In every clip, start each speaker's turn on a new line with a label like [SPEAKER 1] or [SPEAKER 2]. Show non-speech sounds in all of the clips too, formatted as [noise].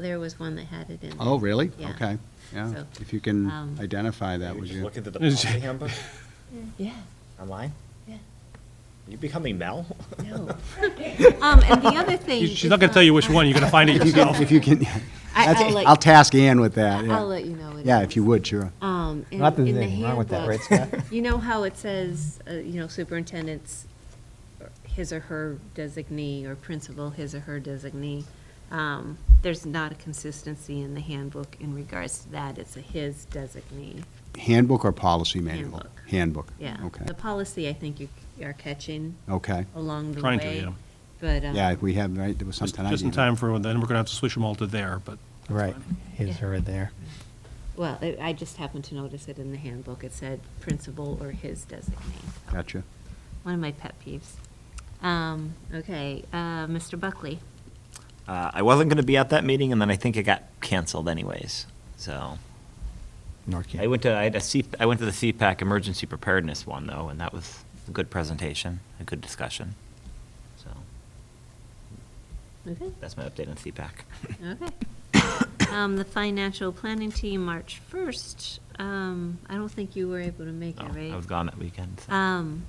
[SPEAKER 1] There was one that had it in. there.
[SPEAKER 2] Oh, really?
[SPEAKER 1] Yeah.
[SPEAKER 2] Okay, yeah.
[SPEAKER 1] So,
[SPEAKER 2] If you can
[SPEAKER 1] um,
[SPEAKER 2] identify that,
[SPEAKER 3] Maybe
[SPEAKER 2] would
[SPEAKER 3] just
[SPEAKER 2] you?
[SPEAKER 3] look into [laughs] the
[SPEAKER 4] Is-
[SPEAKER 3] policy handbook
[SPEAKER 1] Yeah,
[SPEAKER 3] online.
[SPEAKER 1] yeah,
[SPEAKER 3] Are you becoming Mel?
[SPEAKER 5] [laughs]
[SPEAKER 1] no. Um, and the other thing. uh,
[SPEAKER 4] She's not going to tell you which one, you're going to find
[SPEAKER 2] [laughs] [laughs]
[SPEAKER 4] it
[SPEAKER 2] If you
[SPEAKER 4] yourself.
[SPEAKER 2] can, if you can,
[SPEAKER 1] I-
[SPEAKER 2] that's-
[SPEAKER 1] I'll let-
[SPEAKER 2] I'll task Ann with that,
[SPEAKER 1] I'll
[SPEAKER 2] yeah.
[SPEAKER 1] let you know. what it
[SPEAKER 2] Yeah,
[SPEAKER 1] is.
[SPEAKER 2] if you would, sure.
[SPEAKER 1] Um, in,
[SPEAKER 5] Not that
[SPEAKER 1] in the
[SPEAKER 5] there's anything wrong with that,
[SPEAKER 1] handbook,
[SPEAKER 5] right, Scott?
[SPEAKER 1] you know how it says, uh, you know, superintendent's his or her designee or principal his or her designee. Um, there's not a consistency in the handbook in regards to that. It's a his designee.
[SPEAKER 2] Handbook or policy manual?
[SPEAKER 1] Handbook.
[SPEAKER 2] Handbook.
[SPEAKER 1] Yeah.
[SPEAKER 2] Okay,
[SPEAKER 1] The policy, I think you c- are catching
[SPEAKER 2] okay.
[SPEAKER 1] along the
[SPEAKER 4] Trying to,
[SPEAKER 1] way.
[SPEAKER 4] yeah.
[SPEAKER 1] But um,
[SPEAKER 2] Yeah, we have, right, there was
[SPEAKER 4] Just
[SPEAKER 2] something I
[SPEAKER 4] just in
[SPEAKER 2] didn't.
[SPEAKER 4] time for, when- then we're going to have to switch them all to there, but
[SPEAKER 5] Right,
[SPEAKER 1] Yeah.
[SPEAKER 5] his or there.
[SPEAKER 1] Well, I- I just happened to notice it in the handbook. It said principal or his designee.
[SPEAKER 2] Gotcha.
[SPEAKER 1] One of my pet peeves. Um, Okay, uh, Mr. Buckley.
[SPEAKER 3] [laughs] Uh, I wasn't going to be at that meeting, and then I think it got canceled anyways. So
[SPEAKER 5] North Canton.
[SPEAKER 3] I went to I had a C, I went to the CPAC emergency preparedness one though, and that was a good presentation, a good discussion. So
[SPEAKER 1] Okay.
[SPEAKER 3] that's my update on CPAC. [laughs]
[SPEAKER 1] Okay. Um, The financial planning team, March 1st. Um, I don't think you were able to make it,
[SPEAKER 4] Oh,
[SPEAKER 3] No,
[SPEAKER 1] right?
[SPEAKER 3] I was gone that weekend. so.
[SPEAKER 1] Um,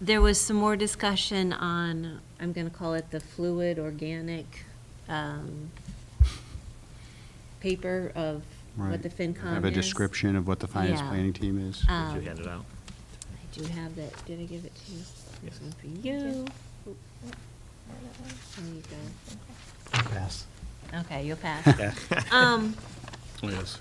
[SPEAKER 1] There was some more discussion on, I'm going to call it the fluid organic um, paper of
[SPEAKER 2] Right.
[SPEAKER 1] what the FinCom is.
[SPEAKER 2] Have a description of what the finance
[SPEAKER 1] Yeah.
[SPEAKER 2] planning team is.
[SPEAKER 1] Um,
[SPEAKER 3] Did you hand it out?
[SPEAKER 1] I do have that, did I give it to you?
[SPEAKER 3] Yes.
[SPEAKER 1] One for you. There you
[SPEAKER 5] Pass.
[SPEAKER 1] go. Okay, you'll
[SPEAKER 2] [laughs]
[SPEAKER 1] pass. Um,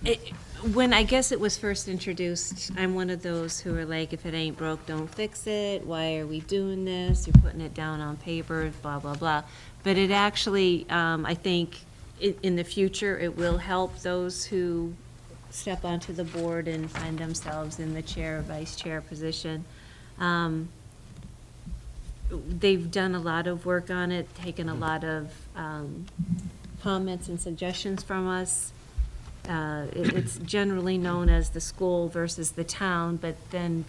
[SPEAKER 1] it- When, I guess it was first introduced, I'm one of those who are like, if it ain't broke, don't fix it. Why are we doing this? You're putting it down on paper, blah, blah, blah. But it actually, um, I think, i- in the future, it will help those who step onto the board and find themselves in the chair or vice chair position. Um, They've done a lot of work on it, taken a lot of um, comments and suggestions from us. Uh, it- It's generally known as the school versus the town, but then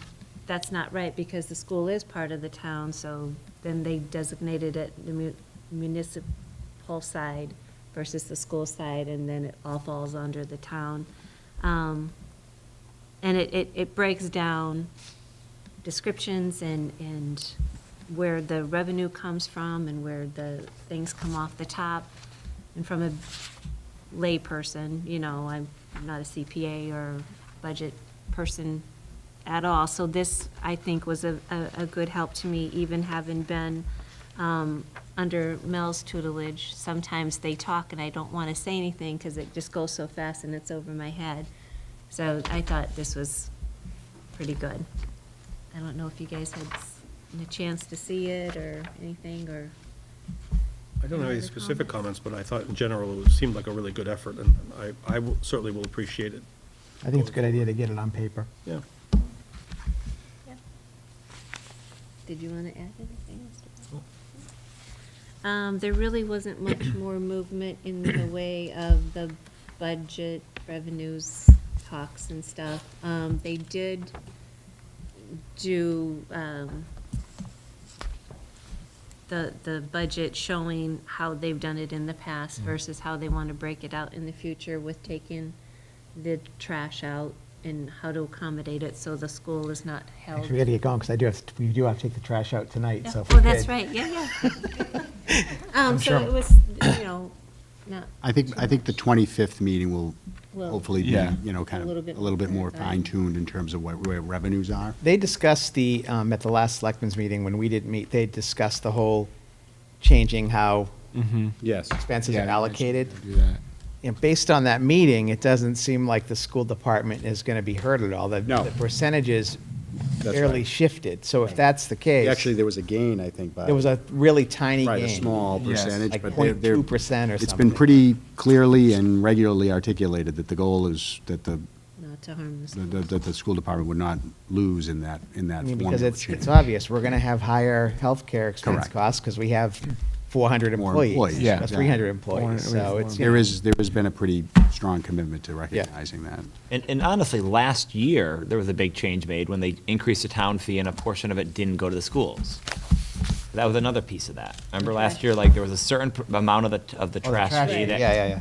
[SPEAKER 1] that's not right because the school is part of the town, so then they designated it the mu- municipal side versus the school side, and then it all falls under the town. Um, And it, it, it breaks down descriptions and, and where the revenue comes from and where the things come off the top. And from a layperson, you know, I'm not a CPA or budget person at all. So this, I think, was a, a, a good help to me, even having been, um, under Mel's tutelage. Sometimes they talk and I don't want to say anything because it just goes so fast and it's over my head. So I thought this was pretty good. I don't know if you guys had s- a chance to see it or anything, or,
[SPEAKER 4] I don't have
[SPEAKER 1] Any
[SPEAKER 4] any
[SPEAKER 1] other
[SPEAKER 4] specific
[SPEAKER 1] comments?
[SPEAKER 4] comments, but I thought in general it seemed like a really good effort, and I, I will- certainly will appreciate it.
[SPEAKER 5] I think it's a good idea to get it on paper.
[SPEAKER 4] Yeah.
[SPEAKER 1] did you want to add anything, Mr. Bell? Um, there really wasn't much more movement in the way of the budget revenues talks and stuff. Um, they did do, um, the, the budget showing how they've done it in the past versus how they want to break it out in the future with taking the trash out and how to accommodate it so the school is not held.
[SPEAKER 5] Actually, we gotta get going, because I do have, to- we do have to take the trash out tonight, so.
[SPEAKER 1] Oh,
[SPEAKER 5] if we
[SPEAKER 1] that's
[SPEAKER 5] could-
[SPEAKER 1] right, yeah,
[SPEAKER 5] [laughs]
[SPEAKER 1] yeah. Um,
[SPEAKER 5] I'm
[SPEAKER 1] so
[SPEAKER 5] sure.
[SPEAKER 1] it was, you know, not
[SPEAKER 2] I think, I think the 25th meeting will
[SPEAKER 1] Will-
[SPEAKER 2] hopefully be,
[SPEAKER 4] Yeah.
[SPEAKER 2] you know,
[SPEAKER 1] A
[SPEAKER 2] kind of,
[SPEAKER 1] little bit
[SPEAKER 2] a little bit more
[SPEAKER 1] more clarified.
[SPEAKER 2] fine-tuned in terms of what, where revenues are.
[SPEAKER 5] They discussed the, um, at the last selectmen's meeting, when we didn't meet, they discussed the whole changing how
[SPEAKER 2] Yes.
[SPEAKER 5] expenses are allocated.
[SPEAKER 2] Do that.
[SPEAKER 5] And based on that meeting, it doesn't seem like the school department is gonna be hurt at all. The-
[SPEAKER 2] No.
[SPEAKER 5] The percentages
[SPEAKER 2] That's
[SPEAKER 5] barely
[SPEAKER 2] right.
[SPEAKER 5] shifted, so if that's the case.
[SPEAKER 2] Actually, there was a gain, I think, by.
[SPEAKER 5] There was a really tiny gain.
[SPEAKER 2] Right, a small
[SPEAKER 5] Yes.
[SPEAKER 2] percentage,
[SPEAKER 5] Like
[SPEAKER 2] but they're. they're-
[SPEAKER 5] 0.2% or
[SPEAKER 2] It's been
[SPEAKER 5] something.
[SPEAKER 2] pretty clearly and regularly articulated that the goal is that the,
[SPEAKER 1] not to harm the
[SPEAKER 2] the-
[SPEAKER 1] school.
[SPEAKER 2] the- that the school department would not lose in that, in that
[SPEAKER 5] I mean,
[SPEAKER 2] formula
[SPEAKER 5] because it's,
[SPEAKER 2] change.
[SPEAKER 5] it's obvious, we're gonna have higher healthcare expense
[SPEAKER 2] Correct.
[SPEAKER 5] costs, because we have four hundred
[SPEAKER 2] More
[SPEAKER 5] employees.
[SPEAKER 2] employees, yeah,
[SPEAKER 5] Three hundred
[SPEAKER 2] exactly.
[SPEAKER 5] employees, so it's. you
[SPEAKER 2] There
[SPEAKER 5] know,
[SPEAKER 2] is, there has been a pretty strong commitment to recognizing that.
[SPEAKER 3] And, and honestly, last year, there was a big change made when they increased the town fee and a portion of it didn't go to the schools. That was another piece of that. Remember
[SPEAKER 1] Okay.
[SPEAKER 3] last year, like, there was a certain pr- amount of the, of the
[SPEAKER 5] Oh, the
[SPEAKER 3] trash
[SPEAKER 5] trash
[SPEAKER 3] fee
[SPEAKER 5] fee,
[SPEAKER 3] that
[SPEAKER 5] yeah, yeah, yeah.